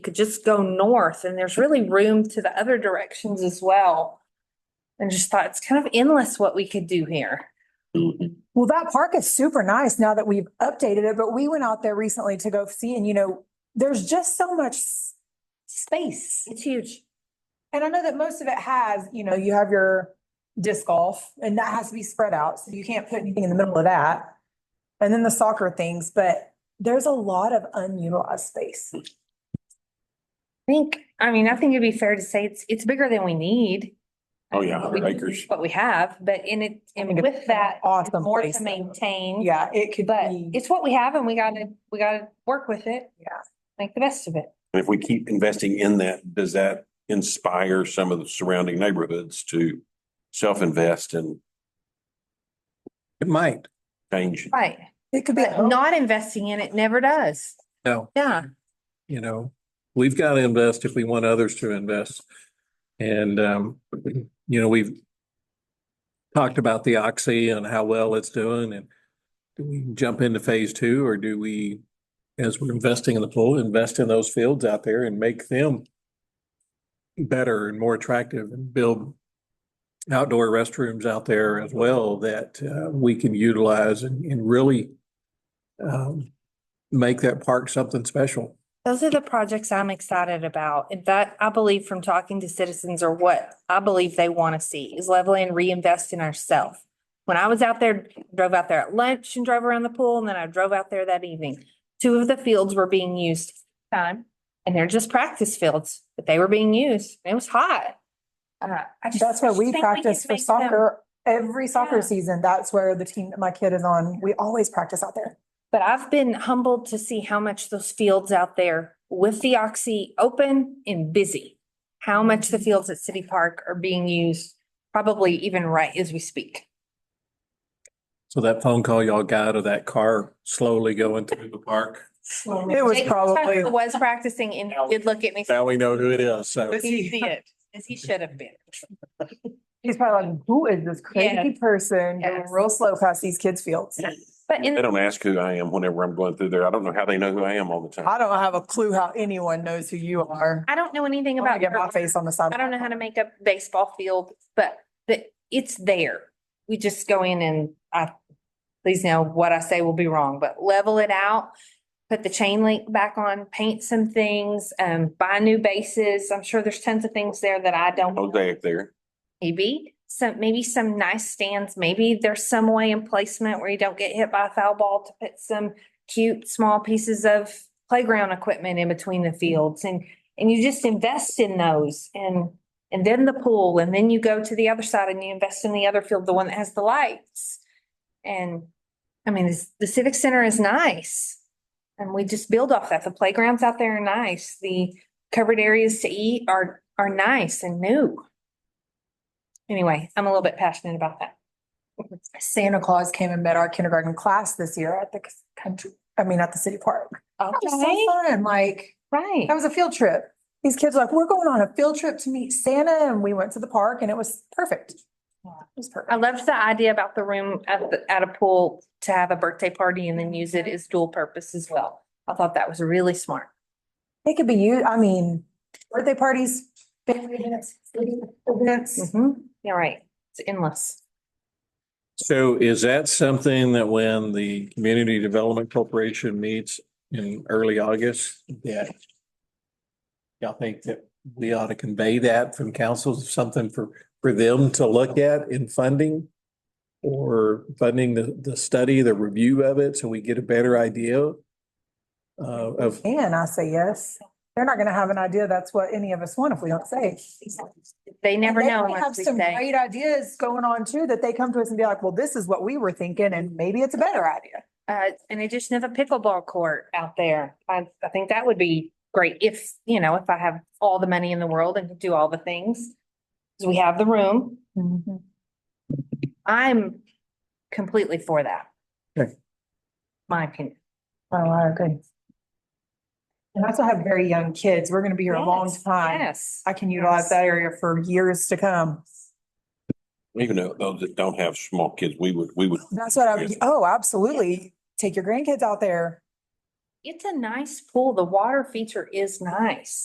could just go north and there's really room to the other directions as well. And just thought it's kind of endless what we could do here. Well, that park is super nice now that we've updated it, but we went out there recently to go see and you know, there's just so much s- space. It's huge. And I know that most of it has, you know, you have your disc golf and that has to be spread out. So you can't put anything in the middle of that. And then the soccer things, but there's a lot of unutilized space. I think, I mean, I think it'd be fair to say it's, it's bigger than we need. Oh, yeah, We hundred can acres. use What we have, but in it, and mean, with that, it's awesome more place. to maintain. Yeah, it could But be. it's what we have and we gotta, we gotta work with it. Yeah. Make the best of it. And if we keep investing in that, does that inspire some of the surrounding neighborhoods to self-invest and It might. change? Right. It could be. But not investing in it never does. No, Yeah. you know, we've got to invest if we want others to invest. And, um, you know, we've talked about the oxy and how well it's doing and do we jump into phase two or do we, as we're investing in the pool, invest in those fields out there and make them better and more attractive and build outdoor restrooms out there as well that, uh, we can utilize and, and really um, make that park something special. Those are the projects I'm excited about. And that I believe from talking to citizens are what I believe they want to see is level and reinvest in ourselves. When I was out there, drove out there at lunch and drove around the pool and then I drove out there that evening. Two of the fields were being used at the time and they're just practice fields, but they were being used. It was hot. Uh, I just- That's where I just we think could practice for make them- soccer. Every Yeah. soccer season, that's where the team that my kid is on, we always practice out there. But I've been humbled to see how much those fields out there with the oxy open and busy. How much Mm-hmm. the fields at City Park are being used, probably even right as we speak. So that phone call y'all got of that car slowly going through the park, It was Oh, Jake probably. Was practicing and did look at me. now we know who it is, so. He did, as he should have been. He's probably like, who is this crazy person going Yes. real slow past these kids' fields? But They in, don't ask who I am whenever I'm going through there. I don't know how they know who I am all the time. I don't have a clue how anyone knows who you are. I don't know anything I'm gonna about. get my face on the side. I don't know how to make a baseball field, but the, it's there. We just go in and I, please know what I say will be wrong, but level it out. Put the chain link back on, paint some things, um, buy new bases. I'm sure there's tons of things there that I don't. know. Mosaic there. Maybe some, maybe some nice stands. Maybe there's some way in placement where you don't get hit by a foul ball to put some cute, small pieces of playground equipment in between the fields and, and you just invest in those and, and then the pool and then you go to the other side and you invest in the other field, the one that has the lights. And I mean, this- the civic center is nice. And we just build off that. The playgrounds out there are nice. The covered areas to eat are, are nice and new anyway, I'm a little bit passionate about that. Santa Claus came and met our kindergarten class this year at the c- country, I mean, at the city park. That was Okay. so fun. Like, Right. that was a field trip. These kids were like, we're going on a field trip to meet Santa and we went to the park and it was perfect. It was I perfect. loved the idea about the room at the, at a pool to have a birthday party and then use it as dual purpose as well. I thought that was really smart. It could be you, I mean, birthday parties, family events, events. Mhm. Yeah, right. It's endless. So is that something that when the Community Development Corporation meets in early August, that y'all think that we ought to convey that from council, something for, for them to look at in funding? Or funding the, the study, the review of it, so we get a better idea uh, of And I say yes. They're not gonna have an idea. That's what any of us want if we don't say. They never And they know might Have unless we some say. great ideas going on too, that they come to us and be like, well, this is what we were thinking and maybe it's a better idea. Uh, an addition of a pickleball court out there. I, I think that would be great if, you know, if I have all the money in the world and could do all the things. 'Cause we have the room. Mm-hmm. I'm completely for that. Okay. My opinion. Oh, I agree. And I also have very young kids. We're gonna be here a long Yes, time. Yes. I can utilize that area for years to come. Even though those that don't have small kids, we would, we would. That's what I, would- oh, absolutely. Take your grandkids out there. It's a nice pool. The water feature is nice.